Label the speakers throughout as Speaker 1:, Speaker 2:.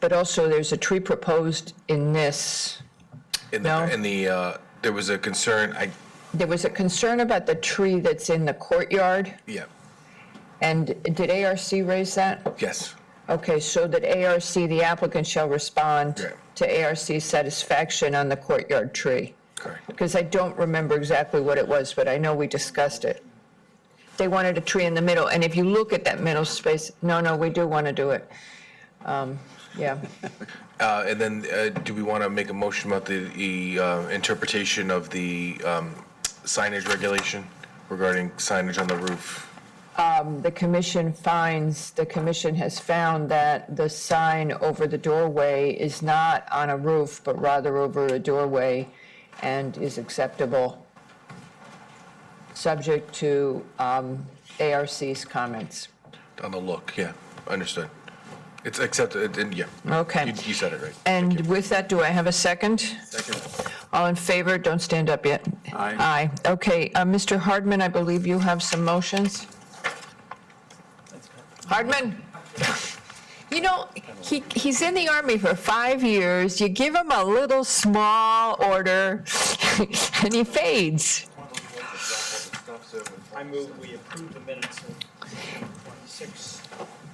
Speaker 1: But also, there's a tree proposed in this.
Speaker 2: In the,
Speaker 1: No.
Speaker 2: in the, uh, there was a concern, I,
Speaker 1: There was a concern about the tree that's in the courtyard,
Speaker 2: yeah,
Speaker 1: and did ARC raise that?
Speaker 2: yes,
Speaker 1: Okay, so that ARC, the applicant shall respond
Speaker 2: Yeah.
Speaker 1: to ARC's satisfaction on the courtyard tree.
Speaker 2: correct.
Speaker 1: Because I don't remember exactly what it was, but I know we discussed it. They wanted a tree in the middle, and if you look at that middle space, no, no, we do want to do it. Um, Yeah,
Speaker 2: Uh, And then, uh, do we want to make a motion about the- the uh, interpretation of the um, signage regulation regarding signage on the roof?
Speaker 1: the commission finds, the commission has found that the sign over the doorway is not on a roof, but rather over a doorway, and is acceptable, subject to um, ARC's comments.
Speaker 2: On the look, yeah, understood. It's accepted, and yeah.
Speaker 1: Okay.
Speaker 2: You you said it right.
Speaker 1: And with that, do I have a second?
Speaker 2: Second.
Speaker 1: All in favor, don't stand up yet.
Speaker 3: Aye.
Speaker 1: Aye. Okay, uh, Mr. Hardman, I believe you have some motions. Hardman? You know, he, he's in the Army for five years, you give him a little small order, and he fades.
Speaker 4: I move we approve the minutes of 26,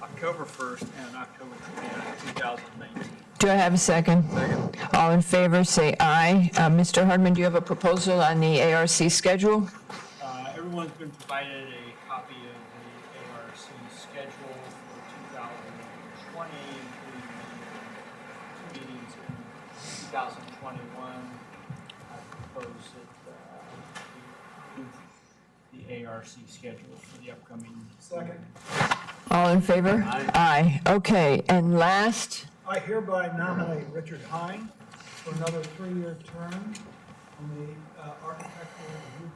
Speaker 4: October 1st and October 29th, 2019.
Speaker 1: Do I have a second? Second. All in favor, say aye. Uh, Mr. Hardman, do you have a proposal on the ARC schedule?
Speaker 4: Uh, Everyone's been provided a copy of the ARC schedule for 2020, including the two meetings in 2021. I propose that uh, we approve the ARC schedule for the upcoming. Second.
Speaker 1: All in favor? Aye. Okay, and last?
Speaker 5: I hereby nominate Richard Hine for another three-year term on the uh, Architectural Review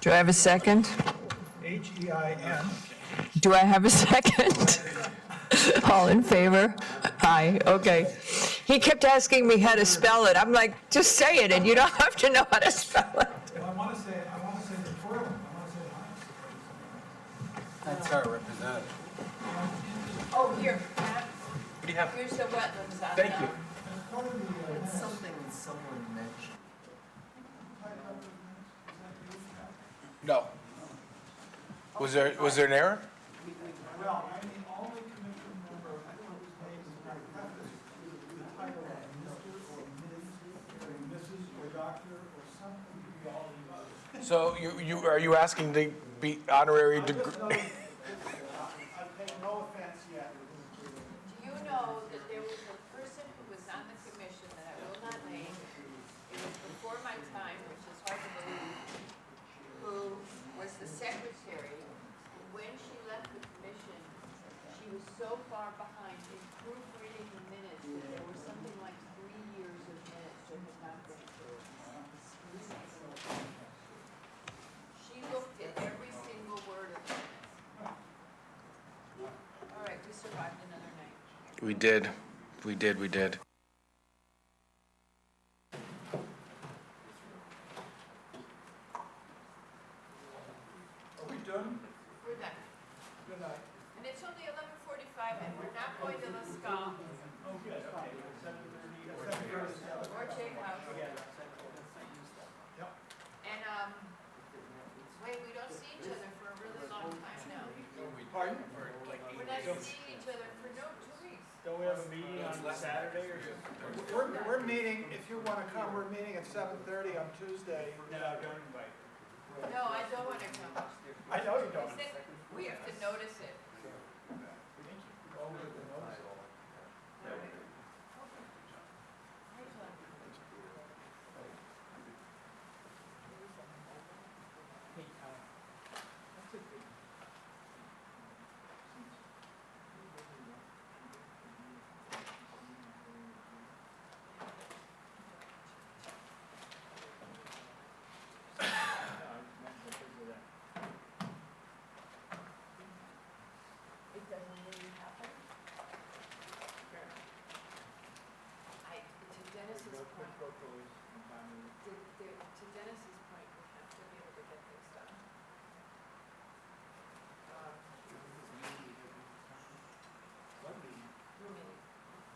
Speaker 1: Do I have a second?
Speaker 5: Committee, H-E-I-N.
Speaker 1: Do I have a second? All in favor? Aye, okay. He kept asking me how to spell it. I'm like, just say it, and you don't have to know how to spell it.
Speaker 5: Well, I want to say, I want to say the firm, I want to say Hine.
Speaker 3: That's our representative.
Speaker 6: Oh, here, Pat. What do you have? Here's the wetlands on Thank you.
Speaker 7: It's something someone mentioned.
Speaker 2: No. Was there, was there an error?
Speaker 5: Well, I'm the only commission member, I don't know whose name is in my preface, the title of Mr. or Ms. or Mrs. or Doctor or something, you all know.
Speaker 2: So you, you, are you asking to be honorary degree?
Speaker 5: I take no offense yet.
Speaker 6: Do you know that there was a person who was on the commission that I will not name, it was before my time, which is hard to believe, who was the secretary, and when she left the commission, she was so far behind in proofreading the minutes that there were something like three years of minutes that had not been approved. She looked at every single word of the minutes. All right, we survived another night.
Speaker 2: We did, we did, we did.
Speaker 6: We're done. And it's only eleven forty-five, and we're not going to La Scala. Or Jake House. And, um, wait, we don't see each other for a really long time now. We're not seeing each other for no, two weeks.
Speaker 4: Don't we have a meeting on Saturday or something?
Speaker 5: We're, we're meeting, if you want to come, we're meeting at seven thirty on Tuesday.
Speaker 4: No, don't invite.
Speaker 6: No, I don't wanna come.
Speaker 5: I know you don't.
Speaker 6: Is it- We have to notice it.
Speaker 5: Oh,